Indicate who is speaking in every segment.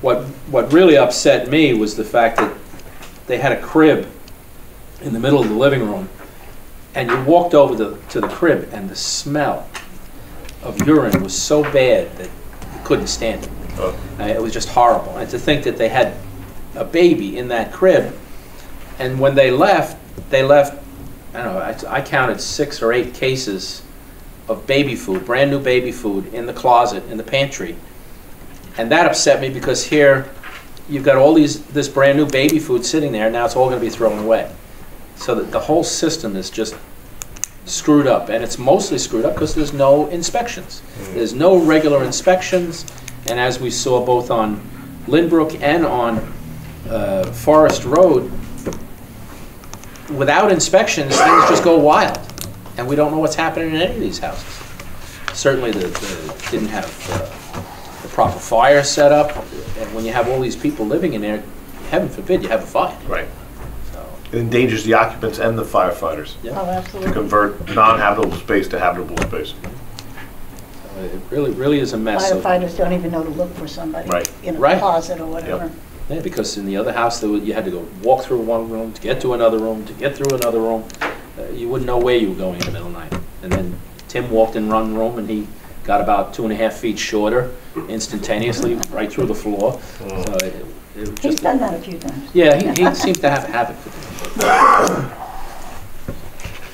Speaker 1: What, what really upset me was the fact that they had a crib in the middle of the living room, and you walked over to, to the crib, and the smell of urine was so bad that you couldn't stand it.
Speaker 2: Oh.
Speaker 1: Uh, It was just horrible. And to think that they had a baby in that crib, and when they left, they left, I don't know, I- I counted six or eight cases of baby food, brand-new baby food, in the closet, in the pantry. And that upset me because here, you've got all these, this brand-new baby food sitting there, and now it's all gonna be thrown away. So that the whole system is just screwed up, and it's mostly screwed up because there's no inspections. There's no regular inspections, and as we saw both on Lindbrook and on uh, Forest Road, without inspections, things just go wild, and we don't know what's happening in any of these houses. Certainly, the, the, didn't have uh, the proper fire set up, and when you have all these people living in there, heaven forbid you have a fire,
Speaker 2: Right.
Speaker 1: so.
Speaker 2: It endangers the occupants and the firefighters
Speaker 1: Yeah.
Speaker 3: Oh,
Speaker 2: to
Speaker 3: absolutely.
Speaker 2: convert non-habitable space to habitable space.
Speaker 1: uh, It really, really is a mess. So-
Speaker 3: Firefighters don't even know to look for somebody
Speaker 2: Right.
Speaker 3: in a
Speaker 1: Right.
Speaker 3: closet or whatever.
Speaker 1: Yeah, because in the other house, there were- you had to go walk through one room to get to another room, to get through another room. Uh, You wouldn't know where you were going in the middle of the night. And then Tim walked in one room and he got about two and a half feet shorter instantaneously, right through the floor. So it- it was
Speaker 3: He's
Speaker 1: just,
Speaker 3: done that a few times.
Speaker 1: yeah, he, he seems to have a habit for things.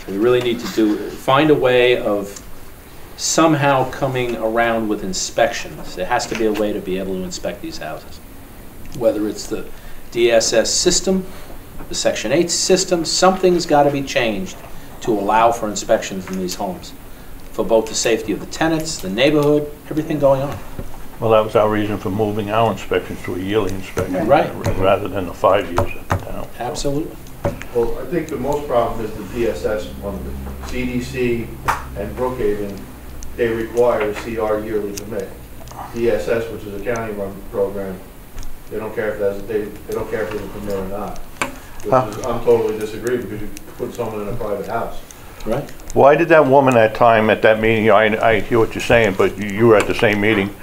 Speaker 1: We really need to do, find a way of somehow coming around with inspections. There has to be a way to be able to inspect these houses, whether it's the DSS system, the Section 8 system, something's got to be changed to allow for inspections in these homes, for both the safety of the tenants, the neighborhood, everything going on.
Speaker 4: Well, that was our reason for moving our inspections to a yearly inspection.
Speaker 1: Right.
Speaker 4: Rather than the five years at the town.
Speaker 1: Absolutely.
Speaker 5: Well, I think the most problem is the DSS one. CDC and Brookhaven, they require a CR yearly permit. DSS, which is a county-run program, they don't care if that's, they, they don't care if there's a permit or not. Which is, I'm totally disagree because you put someone in a private house.
Speaker 1: Right?
Speaker 4: Why did that woman at time, at that meeting, I, I hear what you're saying, but you- you were at the same meeting,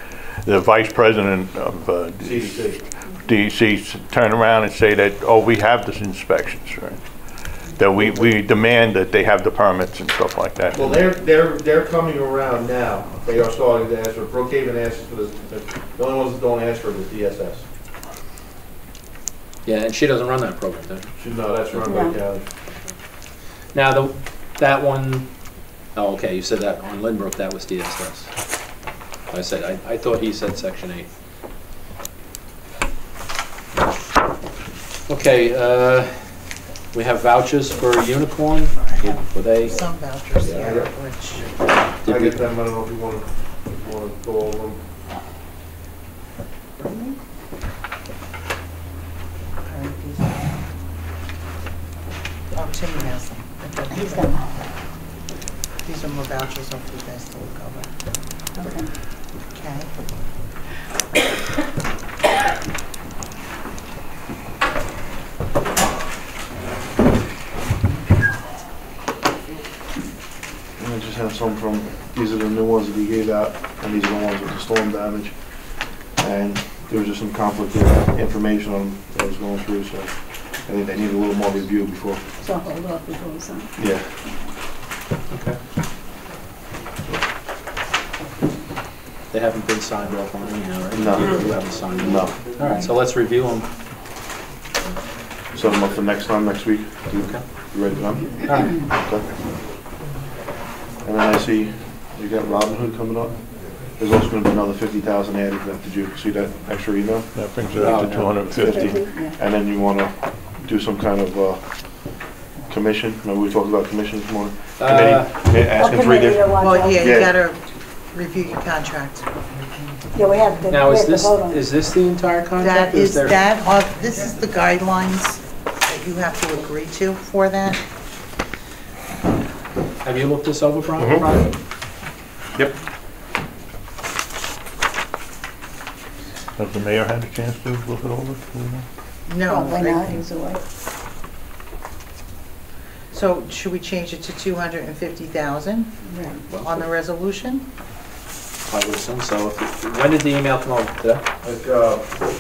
Speaker 4: the vice president of uh,
Speaker 5: CDC,
Speaker 4: DEC s- turn around and say that, oh, we have these inspections, right? That we, we demand that they have the permits and stuff like that.
Speaker 5: Well, they're, they're, they're coming around now. They are starting to ask for, Brookhaven asks for this, the only ones that don't ask for it is DSS.
Speaker 1: Yeah, and she doesn't run that program, does she?
Speaker 5: Should know, that's run by
Speaker 3: No.
Speaker 5: county.
Speaker 1: Now, the, that one, oh, okay, you said that on Lindbrook, that was DSS. I said, I, I thought he said section eight. Okay, uh, we have vouchers for Unicorn, Did- were they,
Speaker 6: Some vouchers, yeah,
Speaker 5: Yeah.
Speaker 6: which,
Speaker 5: I
Speaker 1: did
Speaker 5: get
Speaker 1: we,
Speaker 5: them, I don't know if you want to, if you want to go over them.
Speaker 6: oh, Tim um, has them. Okay.
Speaker 3: He's done that.
Speaker 6: These are more vouchers, hopefully you guys still cover.
Speaker 3: Okay.
Speaker 6: Okay.
Speaker 7: I just have some from, these are the new ones that he gave out, and these are the ones with the storm damage. And there was just some conflicting information on, that was going through, so I think they need a little more review before.
Speaker 3: So hold off before we sign.
Speaker 7: Yeah.
Speaker 1: they haven't been signed off on anyhow, right?
Speaker 7: No.
Speaker 1: You haven't signed them.
Speaker 7: No,
Speaker 1: All right, so let's review them.
Speaker 7: set them up for next time, next week. You
Speaker 1: Okay.
Speaker 7: you ready for them?
Speaker 1: All right,
Speaker 7: Okay. And then I see you got Robin Hood coming up. There's also gonna be another fifty thousand added, to that. did you see that extra email?
Speaker 4: That brings it up to two hundred and fifty.
Speaker 3: Yeah.
Speaker 7: And then you want to do some kind of uh, commission, remember we talked about commissions more?
Speaker 1: Uh,
Speaker 7: Committee, asking
Speaker 3: Okay,
Speaker 7: three
Speaker 3: maybe
Speaker 7: different,
Speaker 3: you want
Speaker 6: Well,
Speaker 3: to-
Speaker 6: yeah, you
Speaker 7: Yeah.
Speaker 6: gotta review your contract.
Speaker 3: Yeah, we have to, we
Speaker 1: now, is
Speaker 3: have to
Speaker 1: this,
Speaker 3: vote on it.
Speaker 1: is this the entire contract?
Speaker 6: That
Speaker 1: or
Speaker 6: is
Speaker 1: there-
Speaker 6: that, of- this is the guidelines that you have to agree to for that.
Speaker 1: Have you looked this over,
Speaker 7: Mm-hmm.
Speaker 1: Brian? Brian?
Speaker 4: Has the mayor had a chance to look it over? Do we know?
Speaker 6: No.
Speaker 3: Probably
Speaker 6: right?
Speaker 3: Oh, not, he's away.
Speaker 6: So should we change it to 250,000
Speaker 3: Right.
Speaker 6: on the resolution?
Speaker 1: I would assume so. If- When did the email come over? Today?
Speaker 5: Like, uh,